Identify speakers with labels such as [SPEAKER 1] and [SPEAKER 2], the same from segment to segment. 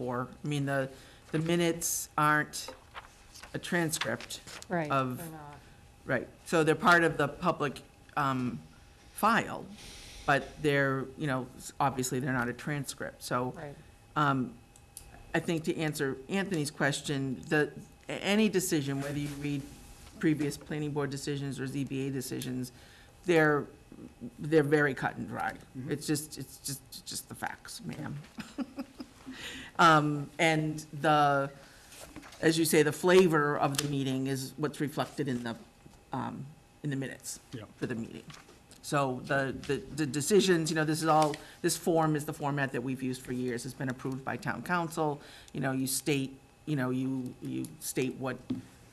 [SPEAKER 1] for. I mean, the, the minutes aren't a transcript,
[SPEAKER 2] Right.
[SPEAKER 1] of-
[SPEAKER 2] they're not.
[SPEAKER 1] right? So they're part of the public um, file, but they're, you know, s- obviously they're not a transcript. So
[SPEAKER 2] Right,
[SPEAKER 1] um, I think to answer Anthony's question, the, a- any decision, whether you read previous planning board decisions or ZBA decisions, they're, they're very cut and dry. It's just, it's just, it's just the facts, ma'am. Um, and the, as you say, the flavor of the meeting is what's reflected in the, um, in the minutes
[SPEAKER 3] Yeah.
[SPEAKER 1] for the meeting. So the, the, the decisions, you know, this is all, this form is the format that we've used for years. It's been approved by town council. You know, you state, you know, you, you state what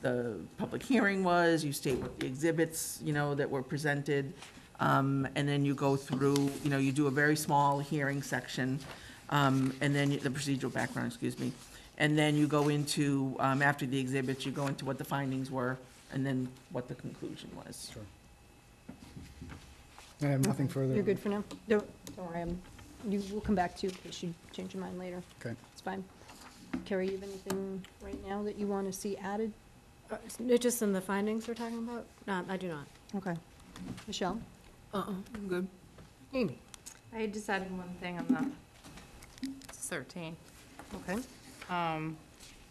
[SPEAKER 1] the public hearing was, you state what the exhibits, you know, that were presented. Um, and then you go through, you know, you do a very small hearing section, um, and then you- the procedural background, excuse me. And then you go into, um, after the exhibits, you go into what the findings were, and then what the conclusion was.
[SPEAKER 3] Sure. I have nothing further.
[SPEAKER 2] you're good for now? Don't, don't worry, I'm- you, we'll come back to you in case you change your mind later.
[SPEAKER 3] Okay.
[SPEAKER 2] It's fine. Carrie, you have anything right now that you want to see added?
[SPEAKER 4] Uh, Just in the findings we're talking about? No, I do not.
[SPEAKER 2] Okay. Michelle?
[SPEAKER 4] Uh-uh, I'm good.
[SPEAKER 2] Amy?
[SPEAKER 5] I just added one thing on the thirteen.
[SPEAKER 2] Okay.
[SPEAKER 5] Um,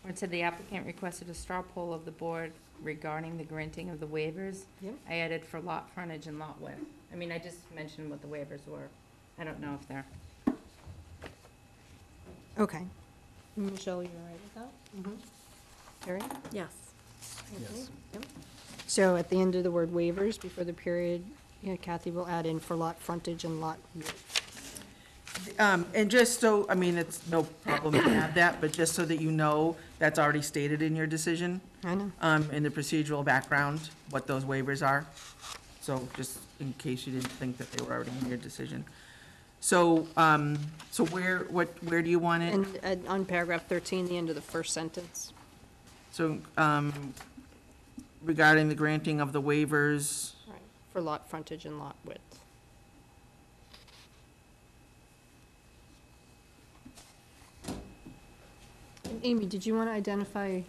[SPEAKER 5] where it said the applicant requested a straw poll of the board regarding the granting of the waivers.
[SPEAKER 2] Yep.
[SPEAKER 5] I added for lot frontage and lot width. I mean, I just mentioned what the waivers were. I don't know if they're,
[SPEAKER 2] Okay. Michelle, you all right with that? Carrie?
[SPEAKER 4] Yes.
[SPEAKER 2] Anthony?
[SPEAKER 3] Yes.
[SPEAKER 2] Yep. So at the end of the word waivers, before the period, you know, Kathy will add in for lot frontage and lot width.
[SPEAKER 1] Um, and just so, I mean, it's no problem to add that, but just so that you know, that's already stated in your decision,
[SPEAKER 2] I know.
[SPEAKER 1] um, in the procedural background, what those waivers are. So just in case you didn't think that they were already in your decision. So, um, so where, what, where do you want it?
[SPEAKER 2] And uh, on paragraph 13, the end of the first sentence.
[SPEAKER 1] So, um, regarding the granting of the waivers,
[SPEAKER 2] Right, for lot frontage and lot width. And Amy, did you want to identify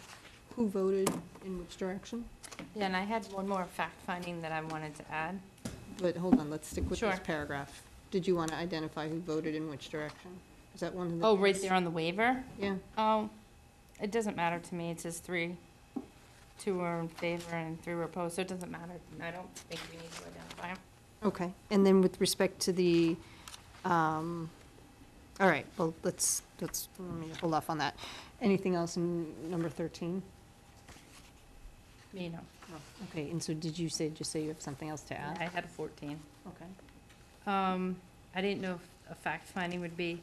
[SPEAKER 2] who voted in which direction?
[SPEAKER 5] yeah, and I had one more fact finding that I wanted to add.
[SPEAKER 2] But hold on, let's stick with this
[SPEAKER 5] Sure.
[SPEAKER 2] paragraph. Did you want to identify who voted in which direction? Is that one of the?
[SPEAKER 5] Oh, right
[SPEAKER 2] things?
[SPEAKER 5] there on the waiver?
[SPEAKER 2] Yeah,
[SPEAKER 5] Oh, it doesn't matter to me. It says three, two were in favor and three were opposed, so it doesn't matter. I don't think we need to identify 'em.
[SPEAKER 2] okay. And then with respect to the, um, all right, well, let's, let's, let me hold off on that. Anything else in number thirteen?
[SPEAKER 5] you know.
[SPEAKER 2] Okay, and so did you say, just say you have something else to add?
[SPEAKER 5] I had a fourteen.
[SPEAKER 2] Okay.
[SPEAKER 5] Um, I didn't know if a fact finding would be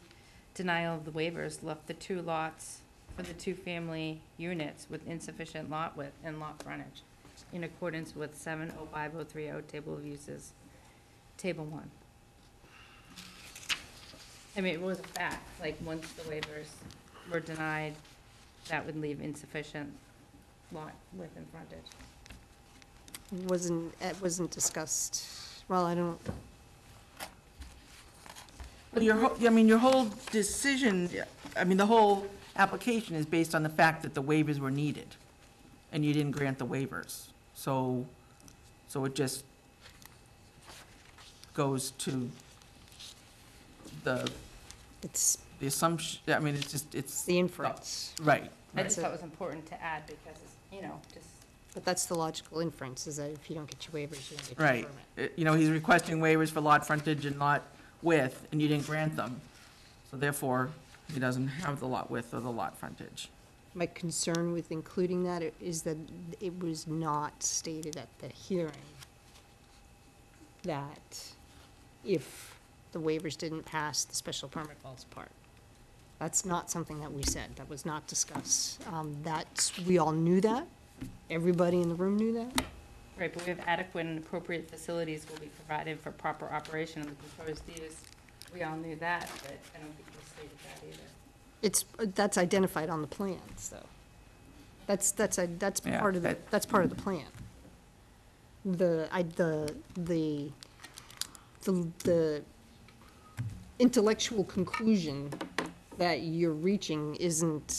[SPEAKER 5] denial of the waivers left the two lots for the two-family units with insufficient lot width and lot frontage in accordance with seven oh five oh three oh table of uses, table one. I mean, it was a fact, like, once the waivers were denied, that would leave insufficient lot width and frontage.
[SPEAKER 2] Wasn't, it wasn't discussed, well, I don't,
[SPEAKER 1] Well, Your, whole- I mean, your whole decision, I mean, the whole application is based on the fact that the waivers were needed, and you didn't grant the waivers. So, so it just goes to the,
[SPEAKER 2] it's
[SPEAKER 1] the assumption, I mean, it's just, it's,
[SPEAKER 2] the inference,
[SPEAKER 1] right.
[SPEAKER 5] I just
[SPEAKER 2] Right.
[SPEAKER 5] thought it was important to add because, you know, just
[SPEAKER 2] but that's the logical inference, is that if you don't get your waivers, you don't get your
[SPEAKER 1] Right.
[SPEAKER 2] permit.
[SPEAKER 1] Uh, You know, he's requesting waivers for lot frontage and lot width, and you didn't grant them. So therefore, he doesn't have the lot width or the lot frontage.
[SPEAKER 2] My concern with including that i- is that it was not stated at the hearing that if the waivers didn't pass, the special permit falls apart. That's not something that we said, that was not discussed. Um, that's, we all knew that, everybody in the room knew that.
[SPEAKER 5] Right, but we have adequate and appropriate facilities will be provided for proper operation of the proposed use. We all knew that, but I don't think we stated that either.
[SPEAKER 2] It's, that's identified on the plan, so. That's, that's, a- that's
[SPEAKER 1] Yeah,
[SPEAKER 2] part of the,
[SPEAKER 1] that-
[SPEAKER 2] that's part of the plan. The, I, the, the, the- the intellectual conclusion that you're reaching isn't